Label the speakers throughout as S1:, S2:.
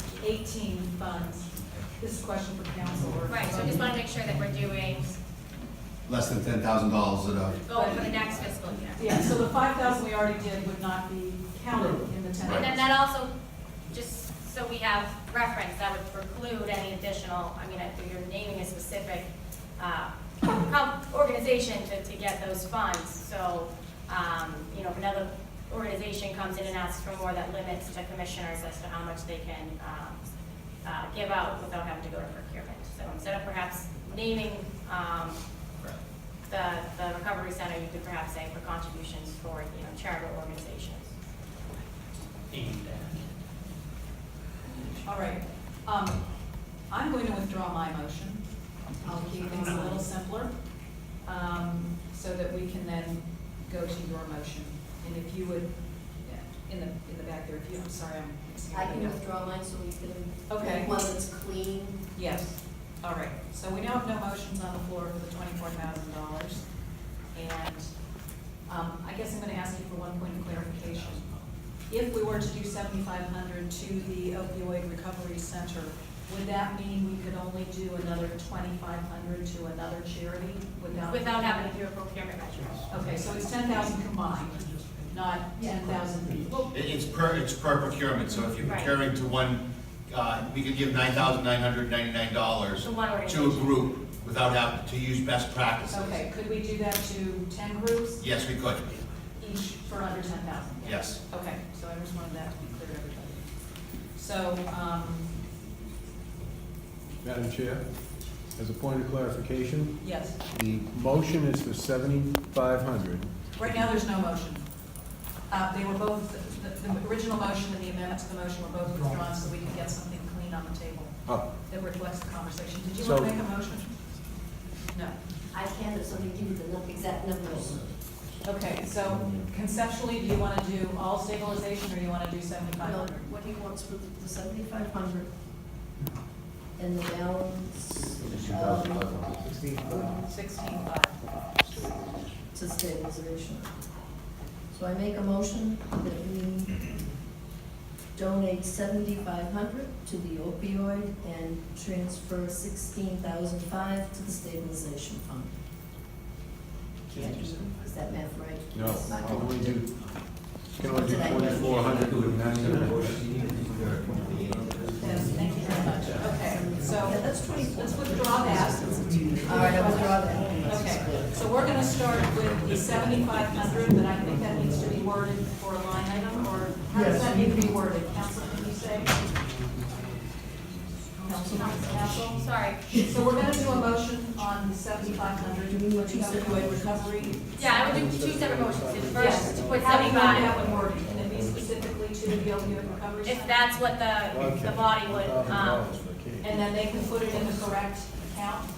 S1: fifteen funds. This is a question for council or.
S2: Right, so I just want to make sure that we're doing,
S3: less than ten thousand dollars at a,
S2: going for the next fiscal year.
S1: Yeah, so the five thousand we already did would not be counted in the ten.
S2: And then that also, just so we have reference, that would preclude any additional, I mean, if you're naming a specific uh, comp- organization to, to get those funds, so, um, you know, if another organization comes in and asks for more, that limits to commissioners as to how much they can um, uh, give out without having to go to procurement. So instead of perhaps naming um, the, the recovery center, you could perhaps say for contributions for, you know, charitable organizations.
S4: aimed at.
S1: All right, um, I'm going to withdraw my motion. I'll keep things a little simpler, um, so that we can then go to your motion. And if you would, yeah, in the, in the back there, if you, I'm sorry, I'm.
S5: I can withdraw mine so we can.
S1: Okay.
S5: One that's clean.
S1: Yes, all right, so we now have no motions on the floor for the twenty-four thousand dollars. And, um, I guess I'm gonna ask you for one point of clarification. If we were to do seventy-five hundred to the opioid recovery center, would that mean we could only do another twenty-five hundred to another charity without?
S2: Without having to do a procurement measure.
S1: Okay, so it's ten thousand combined, not ten thousand.
S2: Well,
S3: it- it's per, it's per procurement, so if you're
S2: Right.
S3: procuring to one, uh, we could give nine thousand nine hundred ninety-nine dollars
S2: To one
S3: to a
S2: organization.
S3: group without having to use best practices.
S1: Okay, could we do that to ten groups,
S3: Yes, we could,
S1: each for under ten thousand?
S3: yes.
S1: Okay, so I just wanted that to be clear to everybody. So, um,
S6: Madam Chair, as a point of clarification,
S1: yes,
S6: the motion is for seventy-five hundred.
S1: right now there's no motion. Uh, they were both, the, the original motion and the amendment to the motion were both withdrawn, so we can get something clean on the table
S6: Oh,
S1: that reflects the conversation. Did you want to
S6: So-
S1: make a motion? No.
S5: I can, if somebody give you the nu- exact numbers.
S1: Okay, so conceptually, do you want to do all stabilization or you want to do seventy-five
S5: Well,
S1: hundred?
S5: What he wants for the- the seventy-five hundred and the balance um,
S1: Sixteen-five.
S5: to stabilization. So I make a motion that we donate seventy-five hundred to the opioid and transfer sixteen thousand five to the stabilization fund. Is that math right?
S6: no, I can only do, I can only do
S5: Today.
S6: twenty-four hundred with ninety-nine.
S1: Yes, thank you very much. Okay,
S5: Yeah,
S1: so
S5: that's twenty-four.
S1: let's withdraw that.
S5: All right, I withdraw that.
S1: Okay, so we're gonna start with the seventy-five hundred, but I think that needs to be worded for a line item, or how does that need to be worded? Council, can you say? Council, council?
S2: Sorry.
S1: So we're gonna do a motion on the seventy-five hundred, do we want to opioid recovery?
S2: Yeah, I would do two separate motions. The First,
S1: Yes,
S2: to put
S1: how do you want that
S2: seventy-five,
S1: one worded? Can it be specifically to the opioid recovery?
S2: if
S1: center?
S2: that's what the, the body would, um,
S1: And then they can put it in the correct account,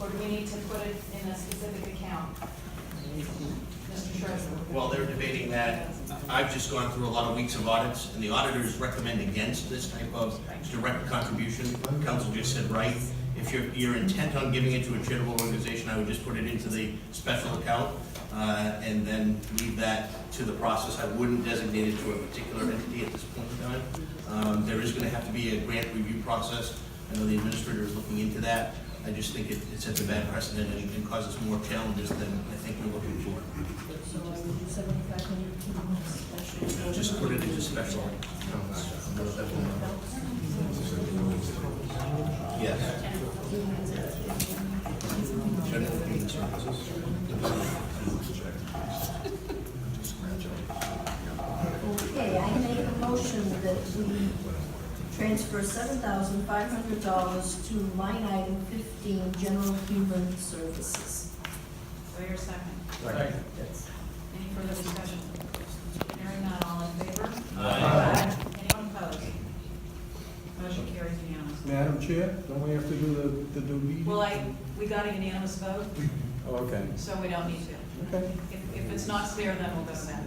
S1: or do we need to put it in a specific account? Mr. Scherzer?
S7: While they're debating that, I've just gone through a lot of weeks of audits, and the auditors recommend against this type of direct contribution. Council just said, right, if you're, you're intent on giving it to a charitable organization, I would just put it into the special account, uh, and then leave that to the process. I wouldn't designate it to a particular entity at this point in time. Um, there is gonna have to be a grant review process. I know the administrator is looking into that. I just think it, it sets a bad precedent and and causes more challenges than I think we're looking for.
S5: So I will do seventy-five hundred to the special.
S7: Just put it into special. Yes. General means services.
S5: Okay, I make a motion that we transfer seven thousand five hundred dollars to line item fifteen, general human services.
S1: Wait a second. Any further discussion? Hearing none, all in favor? Aye. Anyone opposed? Motion carries unanimously.
S6: Madam Chair, don't we have to do the, the due deed?
S1: Well, I, we got a unanimous vote,
S6: Oh, Okay,
S1: so we don't need to.
S6: okay.
S1: If, if it's not clear, then we'll go to that.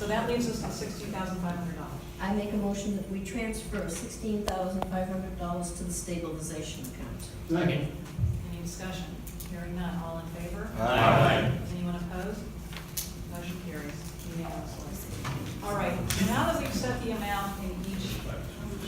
S1: So that leaves us with sixty thousand five hundred dollars.
S5: I make a motion that we transfer sixteen thousand five hundred dollars to the stabilization account.
S4: Second.
S1: Any discussion? Hearing none, all in favor?
S4: Aye.
S1: Anyone opposed? Motion carries unanimously. All right, now that we've set the amount in each